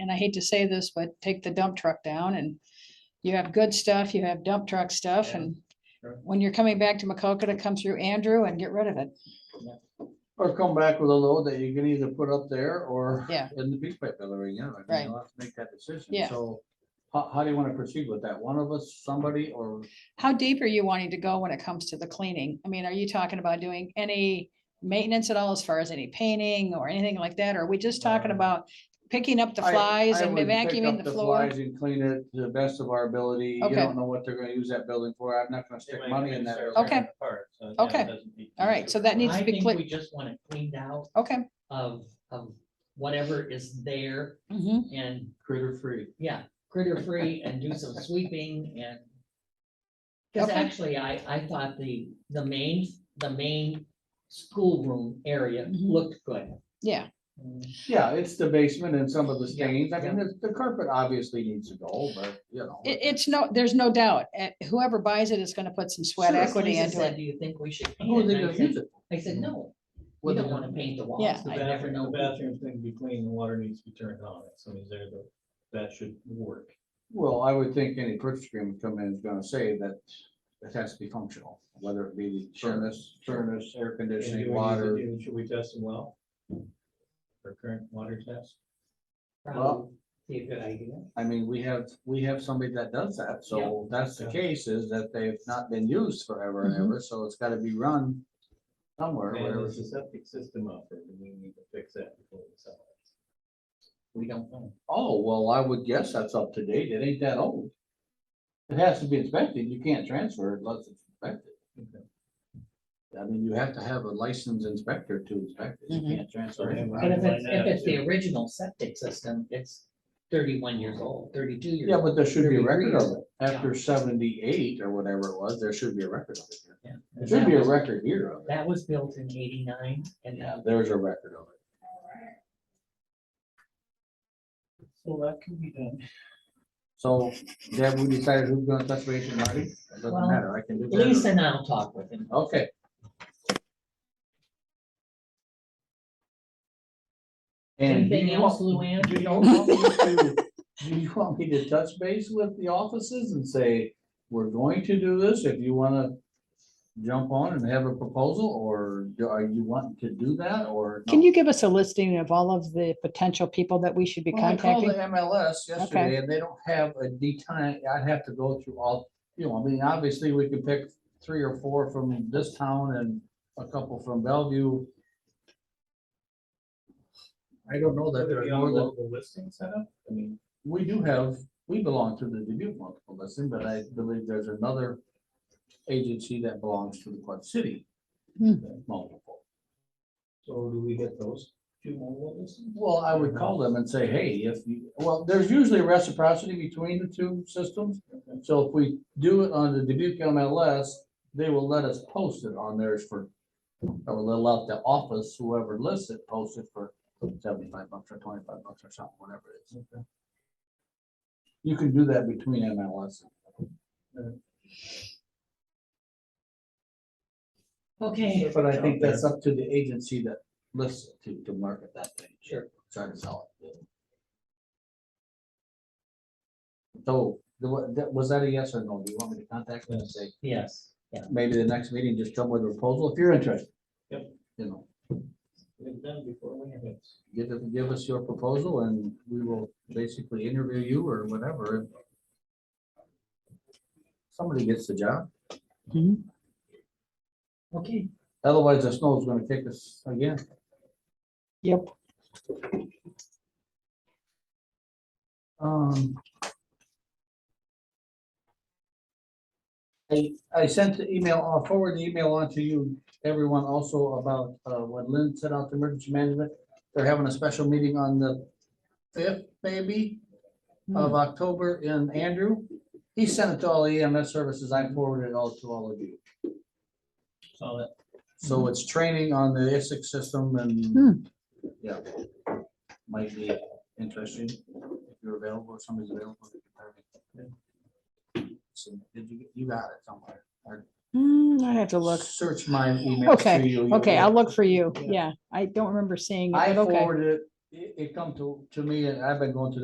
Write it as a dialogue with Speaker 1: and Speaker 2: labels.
Speaker 1: and I hate to say this, but take the dump truck down and you have good stuff, you have dump truck stuff
Speaker 2: Yeah,
Speaker 1: and
Speaker 2: sure.
Speaker 1: when you're coming back to Macocata, come through Andrew and get rid of it.
Speaker 2: Or come back with a load that you can either put up there or.
Speaker 1: Yeah.
Speaker 2: In the piece pipe delivery, yeah. I mean,
Speaker 1: Right.
Speaker 2: You'll have to make that decision.
Speaker 1: Yeah.
Speaker 2: So how, how do you want to proceed with that? One of us, somebody, or
Speaker 1: How deep are you wanting to go when it comes to the cleaning? I mean, are you talking about doing any maintenance at all as far as any painting or anything like that? Or are we just talking
Speaker 2: Um,
Speaker 1: about picking up the
Speaker 2: I-
Speaker 1: flies
Speaker 2: I
Speaker 1: and
Speaker 2: would pick up
Speaker 1: vacuuming the floor?
Speaker 2: flies And clean it to the best of our ability. You
Speaker 1: Okay.
Speaker 2: don't know what they're gonna use that building for. I'm not gonna
Speaker 3: They
Speaker 2: stick
Speaker 3: might
Speaker 2: money
Speaker 3: have
Speaker 2: in
Speaker 3: to
Speaker 2: that.
Speaker 3: start
Speaker 2: building.
Speaker 1: Okay.
Speaker 3: tearing it apart, so yeah, it
Speaker 1: Okay.
Speaker 3: doesn't need to
Speaker 1: All
Speaker 3: be
Speaker 1: right, so that needs
Speaker 4: I
Speaker 1: to be
Speaker 4: think
Speaker 1: clear.
Speaker 4: we just want it cleaned out
Speaker 1: Okay.
Speaker 4: of, of whatever is there
Speaker 1: mhm.
Speaker 4: and,
Speaker 2: Critter free.
Speaker 4: yeah, critter free and do some sweeping and. Cause
Speaker 1: Okay.
Speaker 4: actually, I, I thought the, the main, the main schoolroom area
Speaker 1: Mhm.
Speaker 4: looked good.
Speaker 1: Yeah,
Speaker 2: Yeah, it's the basement and some of the
Speaker 4: Yeah,
Speaker 2: stains. I mean,
Speaker 4: yeah.
Speaker 2: the- the carpet obviously needs to go, but you know.
Speaker 1: it, it's no, there's no doubt. eh, Whoever buys it is gonna put some sweat
Speaker 4: Sure, as
Speaker 1: equity
Speaker 4: Lisa
Speaker 1: into
Speaker 4: said,
Speaker 1: it.
Speaker 4: Do you think we should
Speaker 2: Who are
Speaker 4: paint
Speaker 2: Oh, they
Speaker 4: it? And I
Speaker 2: gonna
Speaker 4: said-
Speaker 2: use it
Speaker 4: I said, no,
Speaker 2: What
Speaker 4: we
Speaker 2: are they
Speaker 4: don't
Speaker 2: gonna
Speaker 4: wanna paint the
Speaker 1: Yeah,
Speaker 4: walls,
Speaker 3: The
Speaker 4: I never
Speaker 3: bathroom,
Speaker 4: know.
Speaker 3: the bathroom's going to be clean, the water needs to be turned on, if somebody's there, though, that should work.
Speaker 2: Well, I would think any purchase agreement come in is gonna say that it has to be functional, whether it be the
Speaker 3: Sure.
Speaker 2: furnace, furnace, air
Speaker 3: And do we need
Speaker 2: conditioning,
Speaker 3: to
Speaker 2: water.
Speaker 3: do- Should we test them well? For current water test?
Speaker 2: Well-
Speaker 4: Probably be a good idea.
Speaker 2: I mean, we have, we have somebody that does that, so that's the
Speaker 3: Yeah. Mm-hmm.
Speaker 2: case is that they've not been used forever and
Speaker 1: Mhm.
Speaker 2: ever, so it's gotta be run somewhere,
Speaker 3: Man,
Speaker 2: whatever.
Speaker 3: there's a septic system out there, and we need to fix that before we sell it.
Speaker 4: We don't know.
Speaker 2: Oh, well, I would guess that's up to date, it ain't that old. It has to be inspected, you can't transfer it unless it's inspected. I mean, you have to have a licensed inspector to inspect it,
Speaker 3: Mm-hmm.
Speaker 1: Mhm.
Speaker 2: you can't transfer it.
Speaker 4: But if it's,
Speaker 3: Line
Speaker 4: if
Speaker 3: up
Speaker 4: it's the
Speaker 3: to-
Speaker 4: original septic system, it's thirty-one years old, thirty-two years.
Speaker 2: Yeah, but there should be a
Speaker 4: Thirty
Speaker 2: record of
Speaker 4: degrees.
Speaker 2: it. After seventy-eight or whatever it was, there should be a record of it. here.
Speaker 4: Yeah.
Speaker 2: There should be a record here of it.
Speaker 4: That was built in eighty-nine and uh,
Speaker 2: Yeah,
Speaker 4: that,
Speaker 2: there's a record of it.
Speaker 3: So that can be done.
Speaker 2: So, Deb, we decided who's gonna touch base with Marty? It doesn't
Speaker 4: Well,
Speaker 2: matter, I can do
Speaker 4: Lisa
Speaker 2: that.
Speaker 4: and I'll talk with him.
Speaker 2: Okay, and do
Speaker 4: Anything
Speaker 2: you
Speaker 4: else,
Speaker 2: want-
Speaker 4: Luann?
Speaker 2: do you want me to- do you want me to touch base with the offices and say, we're going to do this, if you wanna jump on and have a proposal, or do- are you wanting to do that, or?
Speaker 1: Can
Speaker 2: no?
Speaker 1: you give us a listing of all of the potential people that we should be
Speaker 2: Well, I called
Speaker 1: contacting?
Speaker 2: the MLS yesterday and they don't have a detail, I'd have to go through all, you know, I mean, obviously we could pick three or four from this town and a couple from Bellevue. I don't know that
Speaker 3: Would it
Speaker 2: there's
Speaker 3: be
Speaker 2: more
Speaker 3: on
Speaker 2: than,
Speaker 3: local listing setup? I mean,
Speaker 2: we do have, we belong to the Dubuque multiple listing, but I believe there's another agency that belongs to the Quad City
Speaker 1: Hmm.
Speaker 2: multiple.
Speaker 3: so do we get those two local listings?
Speaker 2: Well, I would call them and say, hey, if, you well, there's usually reciprocity between the two systems. So if we do it on the Dubuque MLS, they will let us post it on theirs for, or they'll let the office, whoever lists it, post it for seventy-five bucks or twenty-five bucks or something, whatever it is. You can do that between MLS.
Speaker 4: Okay.
Speaker 2: But I think that's up to the agency that lists it to, to market that thing.
Speaker 4: Sure.
Speaker 2: Try to sell it. So, the what- that- was that a yes or no? Do you want me to contact them and say,
Speaker 4: Yes, yeah.
Speaker 2: maybe the next meeting, just come with a proposal if you're interested?
Speaker 3: Yep.
Speaker 2: You know,
Speaker 3: We've done before we have it.
Speaker 2: give, it- give us your proposal and we will basically interview you or whatever. and Somebody gets the job.
Speaker 4: Okay,
Speaker 2: Otherwise, the snow's gonna kick us again.
Speaker 1: Yep.
Speaker 2: Um. I, I sent the email, I'll forward the email on to you, everyone also about, uh, what Lynn sent out to emergency management. They're having a special meeting on the fifth, maybe, of October in Andrew. He sent it to all the EMS services. I forwarded it all to all of you.
Speaker 3: Saw that.
Speaker 2: So it's training on the ISIC system
Speaker 1: Mm-hmm. Hmm.
Speaker 2: and, yeah. Might be interesting if you're available, if somebody's available. So did you, you got it somewhere? or
Speaker 1: Hmm, I have to look.
Speaker 2: Search my email.
Speaker 1: Okay, Okay, I'll look for you. Yeah, I don't remember seeing it,
Speaker 2: I
Speaker 1: but okay.
Speaker 2: forwarded it, it, it come to, to me and I've been going to